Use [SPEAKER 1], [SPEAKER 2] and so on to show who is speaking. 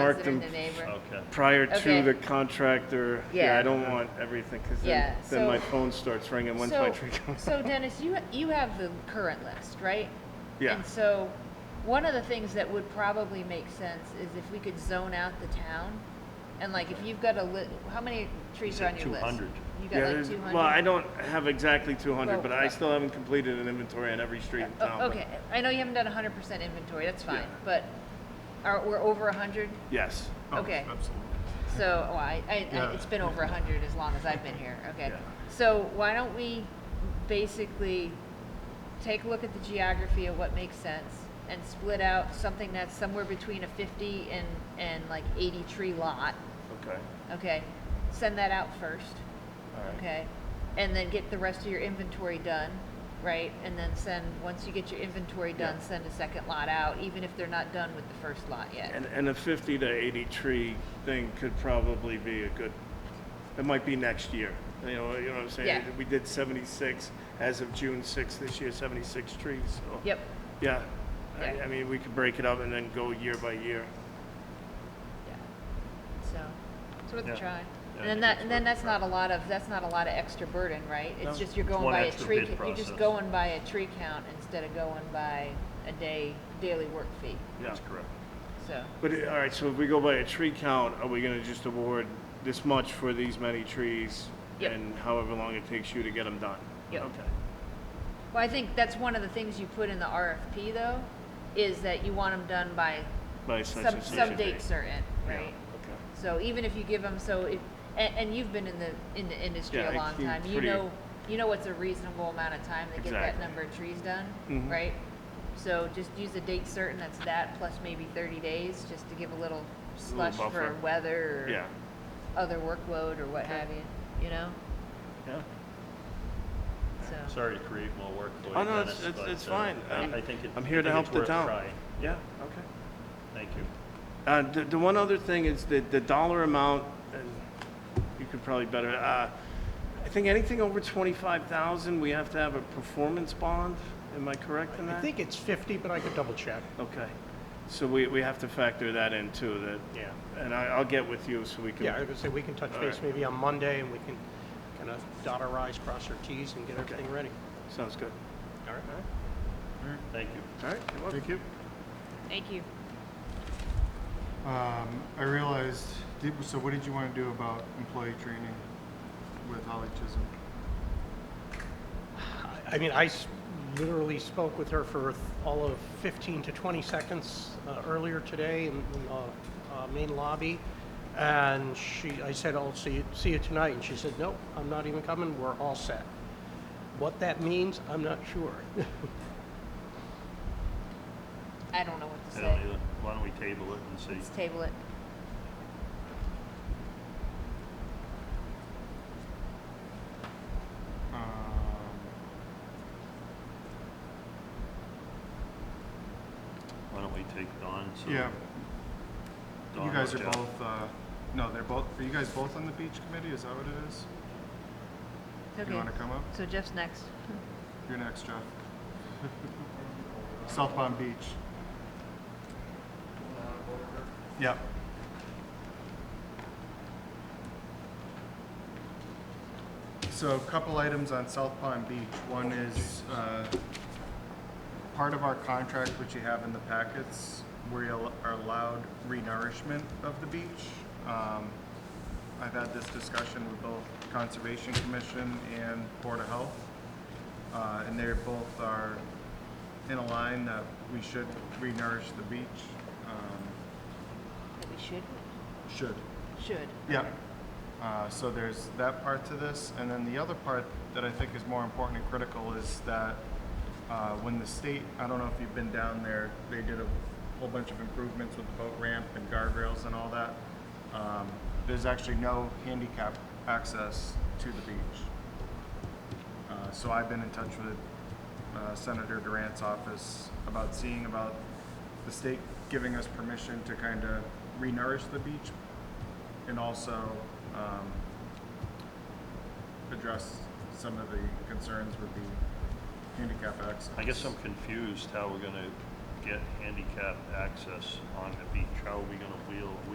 [SPEAKER 1] marked
[SPEAKER 2] considered
[SPEAKER 1] them
[SPEAKER 2] the neighbor.
[SPEAKER 1] Oh,
[SPEAKER 3] Okay.
[SPEAKER 1] prior
[SPEAKER 2] Okay.
[SPEAKER 1] to the contractor. Yeah, I
[SPEAKER 2] Yeah.
[SPEAKER 1] don't want everything, because then,
[SPEAKER 2] Yeah,
[SPEAKER 1] then my
[SPEAKER 2] so-
[SPEAKER 1] phone starts ringing, when's my
[SPEAKER 2] So,
[SPEAKER 1] tree coming?
[SPEAKER 2] so Dennis, you, you have the current list, right?
[SPEAKER 1] Yeah.
[SPEAKER 2] And so, one of the things that would probably make sense is if we could zone out the town, and like, if you've got a li, how many trees are on your list?
[SPEAKER 3] 200.
[SPEAKER 2] You
[SPEAKER 1] Yeah,
[SPEAKER 2] got like
[SPEAKER 1] there's-
[SPEAKER 2] two hundred?
[SPEAKER 1] Well, I don't have exactly two hundred,
[SPEAKER 2] Well,
[SPEAKER 1] but I
[SPEAKER 2] uh,
[SPEAKER 1] still haven't completed an inventory on every street in town. but-
[SPEAKER 2] Oh, Okay, I know you haven't done hundred percent inventory, that's fine,
[SPEAKER 1] Yeah.
[SPEAKER 2] but are, we're over hundred?
[SPEAKER 1] Yes.
[SPEAKER 4] Oh,
[SPEAKER 2] Okay.
[SPEAKER 4] Absolutely.
[SPEAKER 2] So, well, I, I,
[SPEAKER 4] Yeah.
[SPEAKER 2] I, it's been over a hundred as long as I've been here, okay?
[SPEAKER 1] Yeah.
[SPEAKER 2] So why don't we basically take a look at the geography of what makes sense and split out something that's somewhere between a fifty and, and like eighty tree lot,
[SPEAKER 1] Okay.
[SPEAKER 2] okay? Send that out first,
[SPEAKER 1] All right.
[SPEAKER 2] okay? And then get the rest of your inventory done, right? And then send, once you get your inventory
[SPEAKER 1] Yeah.
[SPEAKER 2] done, send a second lot out, even if they're not done with the first lot yet.
[SPEAKER 1] And, and a fifty to eighty tree thing could probably be a good, it might be next year. You know, you know what I'm saying?
[SPEAKER 2] Yeah.
[SPEAKER 1] We did seventy-six as of June sixth this year, seventy-six trees, so.
[SPEAKER 2] Yep,
[SPEAKER 1] Yeah. I,
[SPEAKER 2] Yeah.
[SPEAKER 1] I mean, we could break it up and then go year by year.
[SPEAKER 2] Yeah. So, it's worth
[SPEAKER 3] Yeah.
[SPEAKER 2] a try.
[SPEAKER 3] Yeah, I
[SPEAKER 2] And then
[SPEAKER 3] think
[SPEAKER 2] that,
[SPEAKER 3] it's
[SPEAKER 2] and then
[SPEAKER 3] worth a
[SPEAKER 2] that's
[SPEAKER 3] try.
[SPEAKER 2] not a lot of, that's not a lot of extra burden, right?
[SPEAKER 1] No.
[SPEAKER 2] It's just you're going
[SPEAKER 3] one
[SPEAKER 2] by a
[SPEAKER 3] extra
[SPEAKER 2] tree,
[SPEAKER 3] bid
[SPEAKER 2] ca- you're just
[SPEAKER 3] process.
[SPEAKER 2] going by a tree count instead of going by a day, daily work fee,
[SPEAKER 1] Yeah.
[SPEAKER 3] That's correct.
[SPEAKER 2] so.
[SPEAKER 1] But, uh, all right, so if we go by a tree count, are we gonna just award this much for these many trees?
[SPEAKER 2] Yep.
[SPEAKER 1] And however long it takes you to get them done?
[SPEAKER 2] Yep.
[SPEAKER 1] Okay.
[SPEAKER 2] Well, I think that's one of the things you put in the RFP though, is that you want them done by
[SPEAKER 1] By such
[SPEAKER 2] some,
[SPEAKER 1] and such a
[SPEAKER 2] some
[SPEAKER 1] date.
[SPEAKER 2] date certain,
[SPEAKER 1] Yeah,
[SPEAKER 2] right?
[SPEAKER 1] Okay.
[SPEAKER 2] So even if you give them, so if, and, and you've been in the, in the industry
[SPEAKER 1] Yeah,
[SPEAKER 2] a
[SPEAKER 1] I
[SPEAKER 2] long
[SPEAKER 1] think
[SPEAKER 2] time, you
[SPEAKER 1] pretty-
[SPEAKER 2] know, you know what's a reasonable amount of time to get that
[SPEAKER 1] Exactly.
[SPEAKER 2] number of trees done,
[SPEAKER 1] Mhm.
[SPEAKER 2] right? So just use a date certain that's that plus maybe thirty days, just to give a little slush for
[SPEAKER 1] buffer.
[SPEAKER 2] weather
[SPEAKER 1] Yeah,
[SPEAKER 2] or other workload or what have you, you know,
[SPEAKER 1] yeah.
[SPEAKER 2] so.
[SPEAKER 3] Sorry to create more work for you,
[SPEAKER 1] Oh, no, it's-
[SPEAKER 3] Dennis,
[SPEAKER 1] it's-
[SPEAKER 3] but,
[SPEAKER 1] it's
[SPEAKER 3] uh,
[SPEAKER 1] fine. I'm-
[SPEAKER 3] I I think it-
[SPEAKER 1] I'm here
[SPEAKER 3] I
[SPEAKER 1] to
[SPEAKER 3] think
[SPEAKER 1] help
[SPEAKER 3] it's
[SPEAKER 1] the
[SPEAKER 3] worth
[SPEAKER 1] town.
[SPEAKER 3] trying. Yeah,
[SPEAKER 1] Okay.
[SPEAKER 3] thank you.
[SPEAKER 1] Uh, the, the one other thing is that the dollar amount, and you could probably better, uh, I think anything over twenty-five thousand, we have to have a performance bond. Am I correct in that?
[SPEAKER 5] I think it's 50, but I could double check.
[SPEAKER 1] Okay. So we, we have to factor that in too, that,
[SPEAKER 5] Yeah.
[SPEAKER 1] and I, I'll get with you so we can.
[SPEAKER 5] Yeah, I was gonna say, we can touch
[SPEAKER 1] All
[SPEAKER 5] base
[SPEAKER 1] right.
[SPEAKER 5] maybe on Monday, and we can kind of dot our i's, cross our t's, and get
[SPEAKER 1] Okay.
[SPEAKER 5] everything ready.
[SPEAKER 1] Sounds good.
[SPEAKER 5] All right?
[SPEAKER 3] Thank you.
[SPEAKER 1] All right. you're welcome.
[SPEAKER 4] you.
[SPEAKER 2] Thank you.
[SPEAKER 4] Um, I realized, did, so what did you want to do about employee training with Holly Chisholm?
[SPEAKER 5] I- I mean, I s- literally spoke with her for all of 15 to 20 seconds uh, earlier today in in the uh, main lobby, and she, I said, "I'll see you, see you tonight," and she said, "Nope, I'm not even coming, we're all set." What that means, I'm not sure.
[SPEAKER 2] I don't know what to say.
[SPEAKER 3] I don't either. Why don't we table it and see?
[SPEAKER 2] Let's table it.
[SPEAKER 4] Um,
[SPEAKER 3] Why don't we take Dawn? so
[SPEAKER 4] Yeah,
[SPEAKER 3] Dawn
[SPEAKER 4] you guys are
[SPEAKER 3] works out.
[SPEAKER 4] both, uh, no, they're both, are you guys both on the beach committee? Is that what it is? You
[SPEAKER 2] Okay,
[SPEAKER 4] want to come up?
[SPEAKER 2] so Jeff's next.
[SPEAKER 4] You're next, Jeff. South Palm Beach. Yep. So a couple items on South Palm Beach. One is uh, part of our contract, which you have in the packets, we al- are allowed renourishment of the beach. Um, I've had this discussion with both Conservation Commission and Board of Health uh, and they're both are in a line that we should re-nourish the beach. Um,
[SPEAKER 2] That we should,
[SPEAKER 4] should.
[SPEAKER 2] should.
[SPEAKER 4] Yeah. Uh, so there's that part to this, and then the other part that I think is more important and critical is that uh, when the state, I don't know if you've been down there, they did a whole bunch of improvements with the boat ramp and guardrails and all that. Um, there's actually no handicap access to the beach. Uh, So I've been in touch with uh, Senator Durant's office about seeing about the state giving us permission to kind of renourish the beach and also um, address some of the concerns with the handicap access.
[SPEAKER 3] I guess I'm confused how we're gonna get handicap access on the beach. How are we gonna wheel,